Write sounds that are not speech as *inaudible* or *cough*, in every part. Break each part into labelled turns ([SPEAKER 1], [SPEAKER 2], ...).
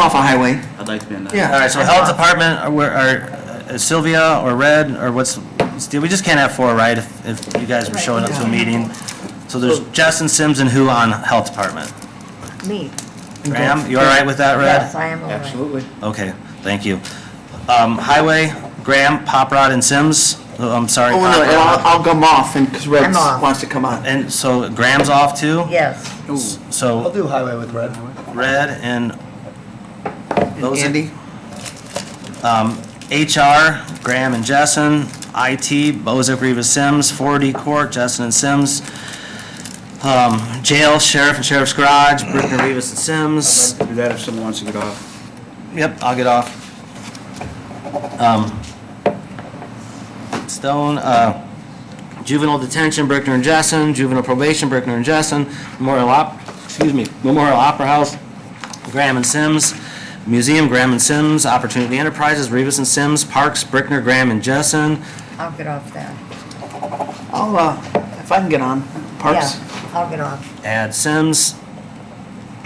[SPEAKER 1] off a highway.
[SPEAKER 2] I'd like to be on that.
[SPEAKER 1] Yeah.
[SPEAKER 3] All right, so health department, or where- or uh, Sylvia, or Red, or what's, we just can't have four, right? If if you guys were showing up to a meeting. So there's Justin Sims and who on health department?
[SPEAKER 4] Me,
[SPEAKER 3] Graham, you all right with that,
[SPEAKER 4] yes,
[SPEAKER 3] Red?
[SPEAKER 4] I am all right.
[SPEAKER 2] Absolutely.
[SPEAKER 3] Okay, thank you. Um, Highway, Graham, Pop Rod, and Sims? Oh, I'm sorry.
[SPEAKER 1] Oh, no,
[SPEAKER 3] Pop
[SPEAKER 1] and I'll,
[SPEAKER 3] Rod.
[SPEAKER 1] I'll come off and, because Red
[SPEAKER 4] I'm off.
[SPEAKER 1] wants to come on.
[SPEAKER 3] And so Graham's off too?
[SPEAKER 4] Yes,
[SPEAKER 5] I'll
[SPEAKER 3] So
[SPEAKER 5] do highway with red.
[SPEAKER 3] Red and those are
[SPEAKER 1] Andy?
[SPEAKER 3] HR, Graham and Jessen, IT, Bozick, Rivas, Sims, 4D Court, Jessen and Sims, um, Jail, Sheriff and Sheriff's Garage, Brickner, Rivas and Sims.
[SPEAKER 2] Do that if someone wants to get off.
[SPEAKER 3] Yep, I'll get off. Um, Stone, uh, juvenile detention, Brickner and Jessen, juvenile probation, Brickner and Jessen, Memorial Op, excuse me, Memorial Opera House, Graham and Sims, Museum, Graham and Sims, Opportunity Enterprises, Rivas and Sims, Parks, Brickner, Graham and Jessen,
[SPEAKER 4] I'll get off that.
[SPEAKER 1] I'll, uh, if I can get on, Parks?
[SPEAKER 4] Yeah, I'll get off.
[SPEAKER 3] add Sims,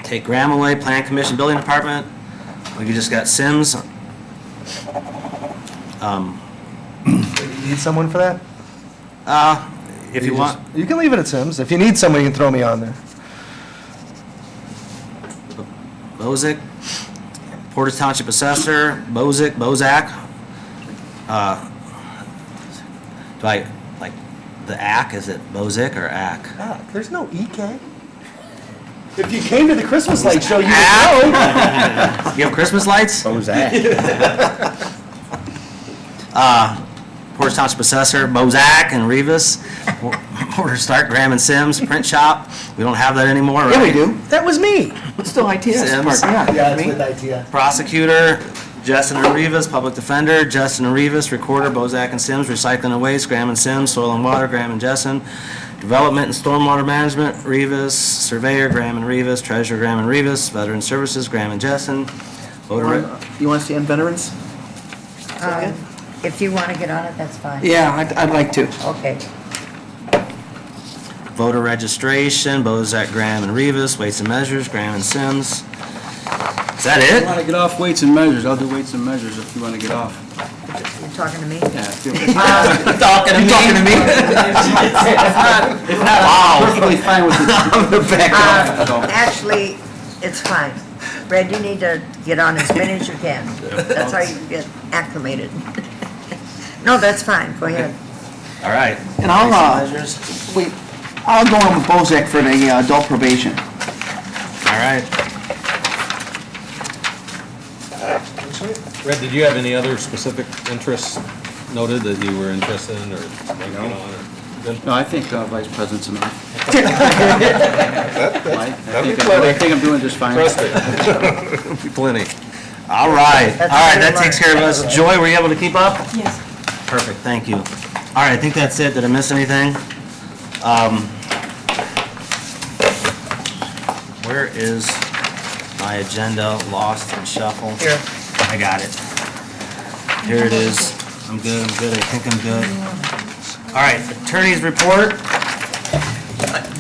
[SPEAKER 3] take Graham away, Plan Commission, Building Department. We just got Sims. Um,
[SPEAKER 5] You Need someone for that?
[SPEAKER 3] uh, if you
[SPEAKER 5] just-
[SPEAKER 3] want,
[SPEAKER 5] You can leave it at Sims. If you need someone, you can throw me on there.
[SPEAKER 3] Bozick, Portage Township Assessor, Bozick, Bozak. Uh, Do I, like, the ack, is it Bozick or ack?
[SPEAKER 5] Ah, there's no EK. If you came to the Christmas light show, you would know.
[SPEAKER 3] You have Christmas lights?
[SPEAKER 2] Bozak.
[SPEAKER 3] *laughs* Uh, Portage Township Assessor, Bozak and Rivas, Por- Porter Stark, Graham and Sims, Print Shop. We don't have that anymore, right?
[SPEAKER 1] Yeah, we do.
[SPEAKER 5] That was me.
[SPEAKER 1] It's still ITS,
[SPEAKER 3] Sims.
[SPEAKER 1] Parks, yeah. Me?
[SPEAKER 5] ITS.
[SPEAKER 3] Prosecutor, Justin and Rivas, Public Defender, Justin and Rivas, Recorder, Bozak and Sims, Recycling and Waste, Graham and Sims, Soil and Water, Graham and Justin, Development and Stormwater Management, Rivas, Surveyor, Graham and Rivas, Treasurer, Graham and Rivas, Veteran Services, Graham and Justin, Voter,
[SPEAKER 1] You want to stay on veterans?
[SPEAKER 4] Um, If you want to get on it, that's fine.
[SPEAKER 1] Yeah, I'd, I'd like to.
[SPEAKER 4] Okay,
[SPEAKER 3] Voter Registration, Bozak, Graham and Rivas, Weights and Measures, Graham and Sims. Is that
[SPEAKER 2] If you
[SPEAKER 3] it?
[SPEAKER 2] want to get off weights and measures, I'll do weights and measures if you want to get off.
[SPEAKER 4] you're talking to me?
[SPEAKER 2] Yeah. If
[SPEAKER 3] You talking to me? talking *laughs* to me?
[SPEAKER 2] not, I'm perfectly fine with it.
[SPEAKER 4] Uh, Actually, it's fine. Red, you need to get on as many as you
[SPEAKER 1] *laughs*
[SPEAKER 4] can. That's how you get acclimated. *laughs* No, that's fine, go ahead.
[SPEAKER 3] All right.
[SPEAKER 1] And I'll,
[SPEAKER 3] Weights
[SPEAKER 1] uh,
[SPEAKER 3] and Measures.
[SPEAKER 1] wait, I'll go on with Bozak for the uh, adult probation.
[SPEAKER 3] All right.
[SPEAKER 6] Red, did you have any other specific interests noted that you were interested in or like, you know, or- good?
[SPEAKER 2] No, I think uh, vice president's enough. Mike, I think I'm- I think I'm doing just fine.
[SPEAKER 6] Plenty.
[SPEAKER 3] All right, all
[SPEAKER 4] That's
[SPEAKER 3] right,
[SPEAKER 4] very
[SPEAKER 3] that takes
[SPEAKER 4] large.
[SPEAKER 3] care of us. Joy, were you able to keep up?
[SPEAKER 7] Yes.
[SPEAKER 3] Perfect, thank you. All right, I think that's it. Did I miss anything? Um, Where is my agenda, lost and shuffled?
[SPEAKER 4] Here.
[SPEAKER 3] I got it. Here it is. I'm good, I'm good, I think I'm good. All right, attorney's report.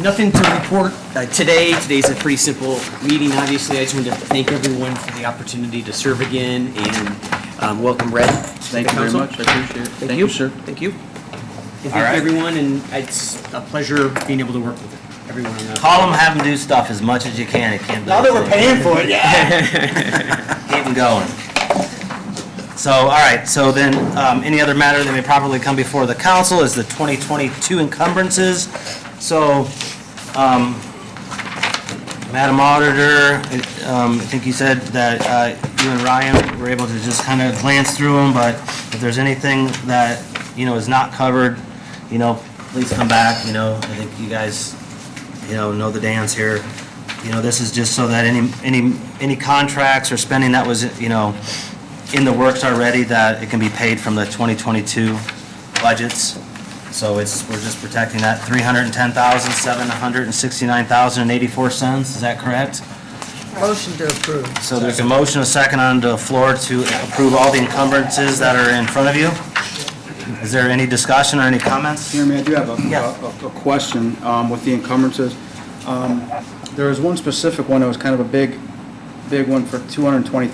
[SPEAKER 8] Nothing to report uh, today. Today's a pretty simple meeting, obviously. I just wanted to thank everyone for the opportunity to serve again and um, welcome Red.
[SPEAKER 2] Thank you very much, I appreciate it.
[SPEAKER 8] Thank you,
[SPEAKER 2] sir.
[SPEAKER 8] Thank you. And
[SPEAKER 3] All right.
[SPEAKER 8] thank everyone, and it's a pleasure being able to work with everyone on that.
[SPEAKER 3] Call them, have them do stuff as much as you can. It can't be.
[SPEAKER 5] Now that we're paying for it, yeah.
[SPEAKER 3] *laughs* Keep 'em going. So, all right, so then, um, any other matter that may properly come before the council is the 2022 encumbrances. So, um, Madam Auditor, it, um, I think you said that uh, you and Ryan were able to just kind of glance through them, but if there's anything that, you know, is not covered, you know, please come back, you know, I think you guys you know, know the dance here. You know, this is just so that any, any, any contracts or spending that was, you know, in the works already, that it can be paid from the 2022 budgets. So it's, we're just protecting that 310,769,084 cents, is that correct?
[SPEAKER 4] Motion to approve.
[SPEAKER 3] So there's a motion, a second on the floor to approve all the encumbrances that are in front of you. Is there any discussion or any comments?
[SPEAKER 2] Jeremy, I do have a-
[SPEAKER 3] Yeah.
[SPEAKER 2] a, a question um, with the encumbrances. Um, There was one specific one that was kind of a big, big one for two hundred and twenty thousand